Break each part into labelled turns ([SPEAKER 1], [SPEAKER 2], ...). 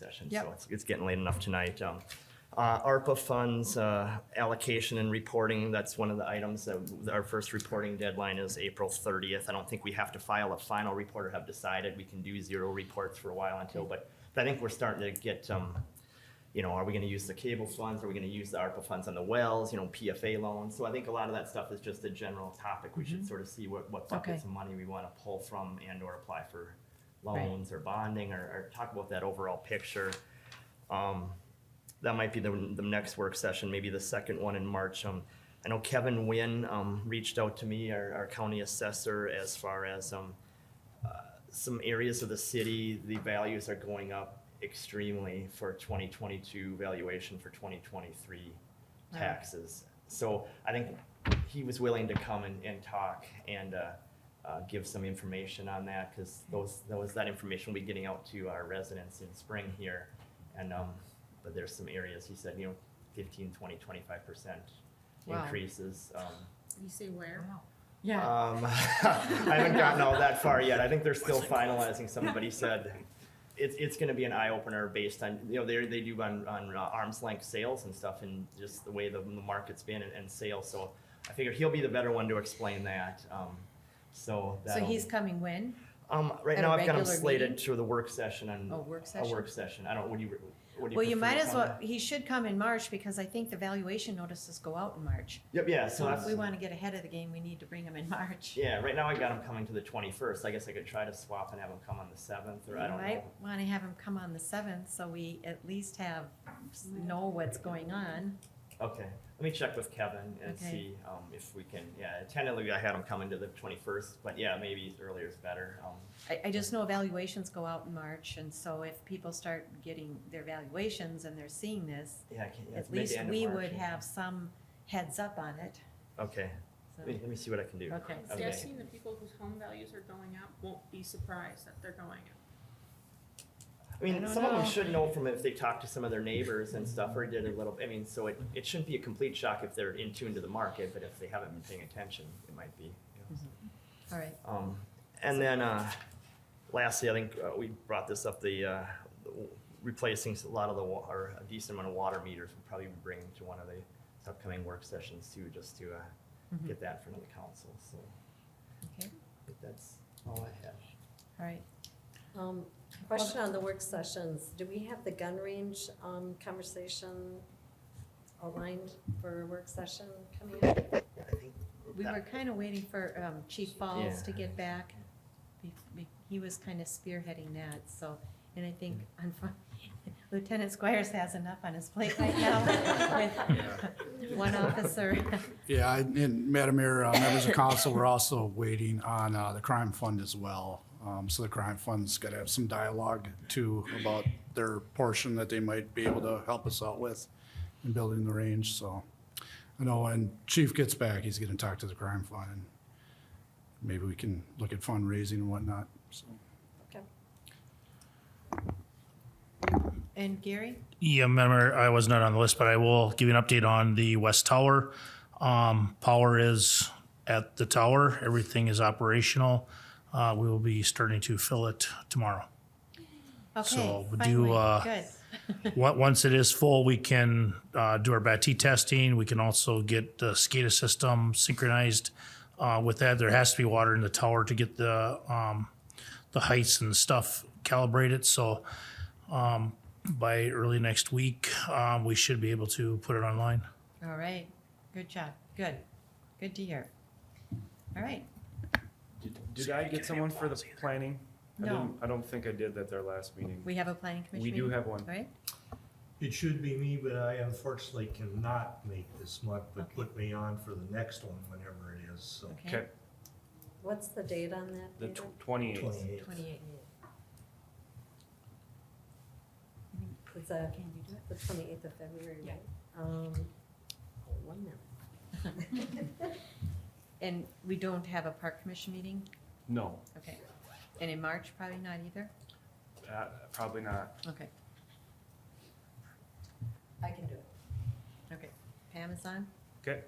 [SPEAKER 1] session,
[SPEAKER 2] Yep.
[SPEAKER 1] so it's, it's getting late enough tonight. Um, uh, ARPA funds, uh, allocation and reporting, that's one of the items that our first reporting deadline is April thirtieth. I don't think we have to file a final report or have decided. We can do zero reports for a while until, but, but I think we're starting to get, um, you know, are we gonna use the cable funds? Are we gonna use the ARPA funds on the wells, you know, PFA loans? So I think a lot of that stuff is just a general topic. We should sort of see what, what buckets
[SPEAKER 2] Mm-hmm. Okay.
[SPEAKER 1] of money we wanna pull from and or apply for
[SPEAKER 2] Right.
[SPEAKER 1] loans or bonding or, or talk about that overall picture. Um, that might be the, the next work session, maybe the second one in March. Um, I know Kevin Wynn, um, reached out to me, our, our county assessor, as far as, um, some areas of the city, the values are going up extremely for 2022 valuation for 2023 taxes. So I think he was willing to come and, and talk and uh, uh, give some information on that because those, those, that information will be getting out to our residents in spring here. And, um, but there's some areas, he said, you know, 15, 20, 25%
[SPEAKER 2] Wow.
[SPEAKER 1] increases. um,
[SPEAKER 3] You say where?
[SPEAKER 2] Yeah.
[SPEAKER 1] um, I haven't gotten all that far yet. I think they're still finalizing some, but he said it's, it's going to be an eye opener based on, you know, they, they do on, on uh, arm's length sales and stuff and just the way the, the market's been and, and sales. So I figured he'll be the better one to explain that. Um, so
[SPEAKER 2] So
[SPEAKER 1] that'll-
[SPEAKER 2] he's coming when?
[SPEAKER 1] um, right
[SPEAKER 2] at a
[SPEAKER 1] now I've got him
[SPEAKER 2] regular
[SPEAKER 1] slated
[SPEAKER 2] meeting?
[SPEAKER 1] to the work session on
[SPEAKER 2] Oh, work
[SPEAKER 1] a
[SPEAKER 2] session?
[SPEAKER 1] work session. I don't, what do you, what do you
[SPEAKER 2] Well, you
[SPEAKER 1] prefer
[SPEAKER 2] might
[SPEAKER 1] to
[SPEAKER 2] as
[SPEAKER 1] call
[SPEAKER 2] well,
[SPEAKER 1] that?
[SPEAKER 2] he should come in March because I think the valuation notices go out in March.
[SPEAKER 1] Yep. Yeah. So,
[SPEAKER 2] So if
[SPEAKER 1] that's-
[SPEAKER 2] we want to get ahead of the game, we need to bring him in March.
[SPEAKER 1] yeah, right now I got him coming to the 21st. I guess I could try to swap and have him come on the 7th or I don't
[SPEAKER 2] We might
[SPEAKER 1] know.
[SPEAKER 2] want to have him come on the seventh, so we at least have, know what's going on.
[SPEAKER 1] Okay, let me check with Kevin and
[SPEAKER 2] Okay.
[SPEAKER 1] see um, if we can, yeah, tentatively I had him coming to the 21st, but yeah, maybe earlier is better. Um,
[SPEAKER 2] I, I just know evaluations go out in March, and so if people start getting their valuations and they're seeing this,
[SPEAKER 1] Yeah, I can't, yeah, it's
[SPEAKER 2] at
[SPEAKER 1] mid to
[SPEAKER 2] least
[SPEAKER 1] end of
[SPEAKER 2] we
[SPEAKER 1] March,
[SPEAKER 2] would
[SPEAKER 1] yeah.
[SPEAKER 2] have some heads up on it.
[SPEAKER 1] Okay,
[SPEAKER 2] So-
[SPEAKER 1] let me, let me see what I can do.
[SPEAKER 2] Okay.
[SPEAKER 3] See, I've seen the people whose home values are going up won't be surprised that they're going up.
[SPEAKER 1] I
[SPEAKER 2] I
[SPEAKER 1] mean,
[SPEAKER 2] don't
[SPEAKER 1] some of them
[SPEAKER 2] know.
[SPEAKER 1] should know from if they talked to some of their neighbors and stuff or did a little, I mean, so it, it shouldn't be a complete shock if they're in tune to the market, but if they haven't been paying attention, it might be. you know.
[SPEAKER 2] Mm-hmm. All right,
[SPEAKER 1] Um, and then, uh, lastly, I think uh, we brought this up, the, uh, replacing a lot of the, wa- or a decent amount of water meters we'll probably bring to one of the upcoming work sessions too, just to, uh,
[SPEAKER 2] Mm-hmm.
[SPEAKER 1] get that in front of the council, so.
[SPEAKER 2] okay,
[SPEAKER 1] I think that's all I have.
[SPEAKER 2] all right.
[SPEAKER 4] Um, Question on the work sessions. Do we have the gun range um, conversation aligned for a work session coming up?
[SPEAKER 1] Yeah, I think
[SPEAKER 2] We
[SPEAKER 1] that-
[SPEAKER 2] were kind of waiting for um, Chief Falls to get back. Be- be- He was kind of spearheading that, so, and I think
[SPEAKER 5] Mm.
[SPEAKER 2] unfo- Lieutenant Squires has enough on his plate right now with one officer.
[SPEAKER 6] Yeah, I- and Madam Mayor, uh, members of council, we're also waiting on uh, the crime fund as well. Um, So the crime fund's got to have some dialogue too about their portion that they might be able to help us out with in building the range, so. I know when Chief gets back, he's going to talk to the crime fund. and Maybe we can look at fundraising and whatnot, so.
[SPEAKER 4] Okay.
[SPEAKER 2] And Gary?
[SPEAKER 7] Yeah, member, I was not on the list, but I will give you an update on the West Tower. Um, power is at the tower. Everything is operational. Uh, we will be starting to fill it tomorrow.
[SPEAKER 2] Okay,
[SPEAKER 7] So, do,
[SPEAKER 2] finally,
[SPEAKER 7] uh,
[SPEAKER 2] good.
[SPEAKER 7] Wa- Once it is full, we can uh, do our BAT testing. We can also get the SCADA system synchronized uh, with that. There has to be water in the tower to get the um, the heights and stuff calibrated. So um, by early next week, um, we should be able to put it online.
[SPEAKER 2] All right, good job, good, good to hear. All right,
[SPEAKER 5] Did, did I get someone for the planning? I
[SPEAKER 2] No.
[SPEAKER 5] didn't- I don't think I did at their last meeting.
[SPEAKER 2] we have a planning commission
[SPEAKER 5] We do
[SPEAKER 2] meeting?
[SPEAKER 5] have one.
[SPEAKER 2] All right,
[SPEAKER 8] It should be me, but I unfortunately cannot make this month, but put me on for the next one whenever it is, so.
[SPEAKER 2] okay,
[SPEAKER 5] Okay,
[SPEAKER 4] What's the date on that?
[SPEAKER 5] the
[SPEAKER 4] Peter?
[SPEAKER 5] twenty-eighth.
[SPEAKER 8] 28th.
[SPEAKER 2] twenty-eight.
[SPEAKER 4] It's the
[SPEAKER 2] Can you do it?
[SPEAKER 4] the 28th of February,
[SPEAKER 2] Yeah.
[SPEAKER 4] right? Um, hold One minute.
[SPEAKER 2] And we don't have a park commission meeting?
[SPEAKER 5] No,
[SPEAKER 2] Okay. And in March, probably not either?
[SPEAKER 5] uh, probably not.
[SPEAKER 2] Okay,
[SPEAKER 4] I can do it.
[SPEAKER 2] okay. Pam is on?
[SPEAKER 5] Okay,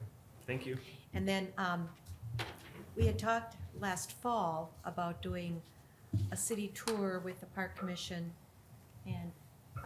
[SPEAKER 5] thank you.
[SPEAKER 2] And then, um, we had talked last fall about doing a city tour with the park commission and